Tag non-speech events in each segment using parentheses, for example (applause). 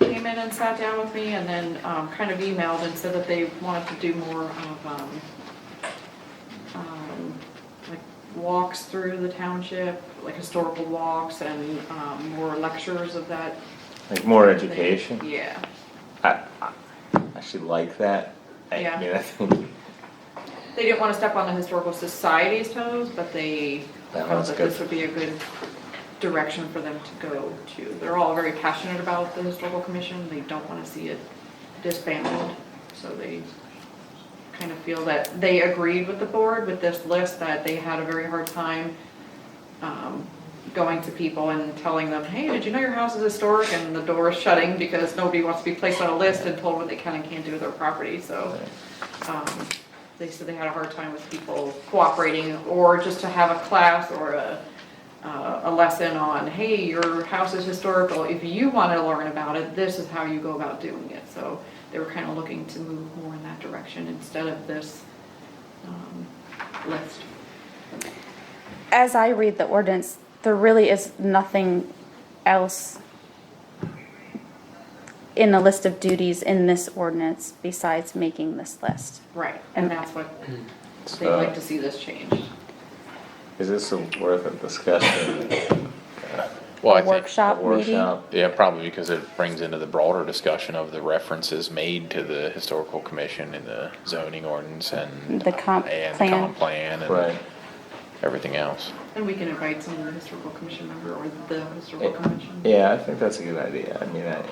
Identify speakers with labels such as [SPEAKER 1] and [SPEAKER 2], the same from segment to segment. [SPEAKER 1] came in and sat down with me and then um, kind of emailed and said that they wanted to do more of, um, um, like walks through the township, like historical walks and um, more lectures of that.
[SPEAKER 2] Like more education.
[SPEAKER 1] Yeah.
[SPEAKER 2] I, I actually like that. I
[SPEAKER 1] Yeah.
[SPEAKER 2] mean, I think
[SPEAKER 1] They didn't want to step on the historical society's toes, but they
[SPEAKER 2] That
[SPEAKER 1] felt
[SPEAKER 2] one's
[SPEAKER 1] that
[SPEAKER 2] good.
[SPEAKER 1] this would be a good direction for them to go to. They're all very passionate about the historical commission, they don't want to see it disbanded, so they kind of feel that they agreed with the board with this list, that they had a very hard time um, going to people and telling them, hey, did you know your house is historic? And the door is shutting because nobody wants to be placed on a list and told what they can and can't do with their property, so. um, They said they had a hard time with people cooperating, or just to have a class or a, uh, a lesson on, hey, your house is historical, if you wanna learn about it, this is how you go about doing it, so. They were kinda looking to move more in that direction instead of this, um, list.
[SPEAKER 3] As I read the ordinance, there really is nothing else in the list of duties in this ordinance besides making this list.
[SPEAKER 1] Right, and that's what they'd
[SPEAKER 2] so.
[SPEAKER 1] like to see this change.
[SPEAKER 2] uh, Is this a worth a discussion?
[SPEAKER 4] Well, I
[SPEAKER 3] A
[SPEAKER 4] think,
[SPEAKER 3] workshop,
[SPEAKER 2] A
[SPEAKER 3] maybe?
[SPEAKER 2] workshop?
[SPEAKER 4] yeah, probably because it brings into the broader discussion of the references made to the historical commission and the zoning ordinance and.
[SPEAKER 3] The comp
[SPEAKER 4] and
[SPEAKER 3] plan.
[SPEAKER 4] comp plan
[SPEAKER 2] Right.
[SPEAKER 4] and everything else.
[SPEAKER 1] And we can invite some of the historical commission member or the historical
[SPEAKER 2] Yeah.
[SPEAKER 1] commission.
[SPEAKER 2] Yeah, I think that's a good idea. I mean, I,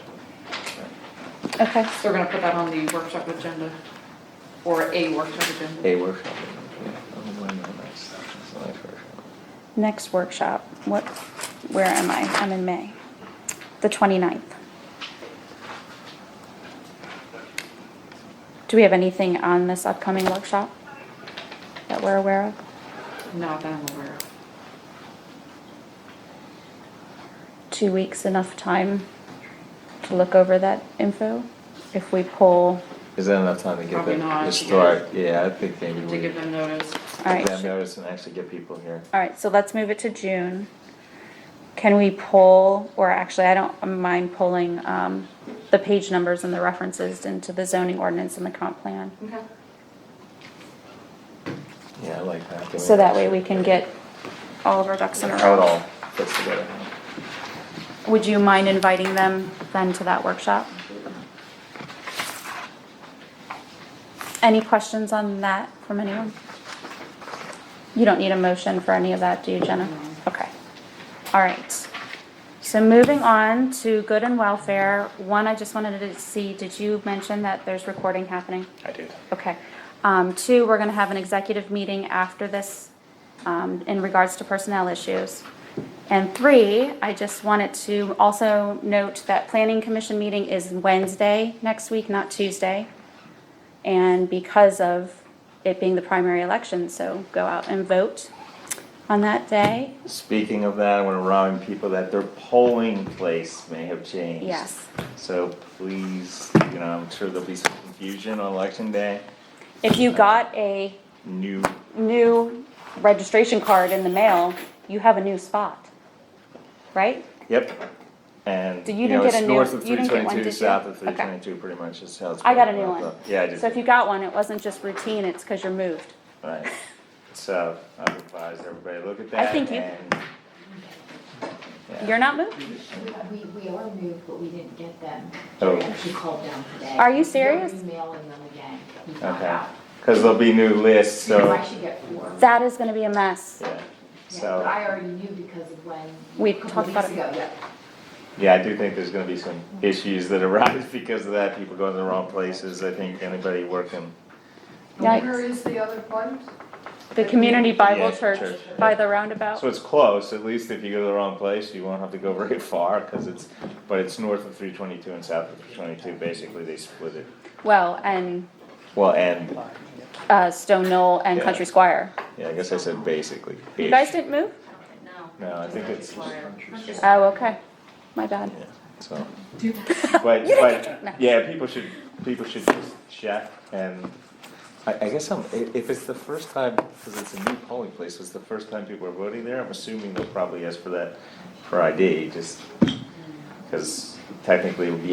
[SPEAKER 3] Okay,
[SPEAKER 1] So we're gonna put that on the workshop agenda, or a workshop agenda.
[SPEAKER 2] a workshop. yeah, I'm going to my next- it's my first one.
[SPEAKER 3] next workshop, what, where am I? I'm in May, the 29th. Do we have anything on this upcoming workshop that we're aware of?
[SPEAKER 1] Not that I'm aware of.
[SPEAKER 3] two weeks enough time to look over that info? If we pull,
[SPEAKER 2] Is that enough time to get
[SPEAKER 1] Probably
[SPEAKER 2] the
[SPEAKER 1] not,
[SPEAKER 2] historic? Yeah, I think maybe
[SPEAKER 1] To
[SPEAKER 2] we
[SPEAKER 1] give them notice.
[SPEAKER 3] all
[SPEAKER 2] give
[SPEAKER 3] right,
[SPEAKER 2] them
[SPEAKER 3] sh-
[SPEAKER 2] notice and actually get people here.
[SPEAKER 3] all right, so let's move it to June. Can we pull, or actually, I don't mind pulling, um, the page numbers and the references into the zoning ordinance and the comp plan?
[SPEAKER 1] Okay.
[SPEAKER 2] Yeah, I like that. Can
[SPEAKER 3] So that way we
[SPEAKER 2] actually
[SPEAKER 3] can get all of our ducks in a
[SPEAKER 2] How it all
[SPEAKER 3] row.
[SPEAKER 2] fits together.
[SPEAKER 3] Would you mind inviting them then to that workshop? Any questions on that from anyone? You don't need a motion for any of that, do you, Jenna? Okay. All right. So moving on to good and welfare, one, I just wanted to see, did you mention that there's recording happening?
[SPEAKER 4] I did.
[SPEAKER 3] Okay. Um, two, we're gonna have an executive meeting after this, um, in regards to personnel issues. And three, I just wanted to also note that planning commission meeting is Wednesday next week, not Tuesday. And because of it being the primary election, so go out and vote on that day.
[SPEAKER 2] Speaking of that, I want to remind people that their polling place may have changed.
[SPEAKER 3] Yes.
[SPEAKER 2] So please, you know, I'm sure there'll be some confusion on election day.
[SPEAKER 3] If you got a
[SPEAKER 2] New,
[SPEAKER 3] new registration card in the mail, you have a new spot, right?
[SPEAKER 2] yep. And,
[SPEAKER 3] So you
[SPEAKER 2] you know,
[SPEAKER 3] didn't get
[SPEAKER 2] it's
[SPEAKER 3] a new-
[SPEAKER 2] north of
[SPEAKER 3] you
[SPEAKER 2] three
[SPEAKER 3] didn't get one,
[SPEAKER 2] twenty-two,
[SPEAKER 3] did you?
[SPEAKER 2] south of three
[SPEAKER 3] Okay.
[SPEAKER 2] twenty-two, pretty much is how it's.
[SPEAKER 3] I got a new
[SPEAKER 2] broken up,
[SPEAKER 3] one.
[SPEAKER 2] though. Yeah, I did.
[SPEAKER 3] So if you got one, it wasn't just routine, it's because you're moved.
[SPEAKER 2] Right. So I would advise everybody, look at
[SPEAKER 3] I
[SPEAKER 2] that
[SPEAKER 3] think you-
[SPEAKER 2] and. Yeah.
[SPEAKER 3] You're not moved?
[SPEAKER 5] We, we are moved, but we didn't get them.
[SPEAKER 2] Oh.
[SPEAKER 5] She called down today.
[SPEAKER 3] Are you serious?
[SPEAKER 5] We're emailing them again. We found
[SPEAKER 2] Okay,
[SPEAKER 5] out.
[SPEAKER 2] cause there'll be new lists,
[SPEAKER 5] So
[SPEAKER 2] so,
[SPEAKER 5] I should get four. Yeah,
[SPEAKER 3] That is gonna be a mess.
[SPEAKER 2] yeah,
[SPEAKER 5] But
[SPEAKER 2] so,
[SPEAKER 5] I already knew because of when.
[SPEAKER 3] We
[SPEAKER 5] a couple
[SPEAKER 3] talked about
[SPEAKER 5] weeks
[SPEAKER 3] it.
[SPEAKER 5] ago, yeah.
[SPEAKER 2] yeah, I do think there's gonna be some issues that (laughs) arise because of that, people going to the wrong places, I think anybody working.
[SPEAKER 3] Yikes.
[SPEAKER 6] Where is the other part?
[SPEAKER 3] The Community
[SPEAKER 2] Yeah,
[SPEAKER 3] Bible Church
[SPEAKER 2] church.
[SPEAKER 3] by the roundabout.
[SPEAKER 2] So it's close, at least if you go to the wrong place, you won't have to go (laughs) very far, cause it's, but it's north of three twenty-two and south of three twenty-two, basically, they split it.
[SPEAKER 3] Well, and,
[SPEAKER 2] Well, and,
[SPEAKER 3] uh, Stone Knoll and
[SPEAKER 2] Yeah.
[SPEAKER 3] Country Squire.
[SPEAKER 2] yeah, I guess I said basically.
[SPEAKER 3] You guys didn't move?
[SPEAKER 2] No, I think it's,
[SPEAKER 3] Oh, okay. My bad.
[SPEAKER 2] yeah, so. (laughs)
[SPEAKER 3] (laughs)
[SPEAKER 2] But, but, yeah, people should, people should just check and, I, I guess I'm, i- if it's the first time, cause it's a new polling place, it's the first time people are voting there, I'm assuming they'll probably ask for that, for ID, just, cause technically it would be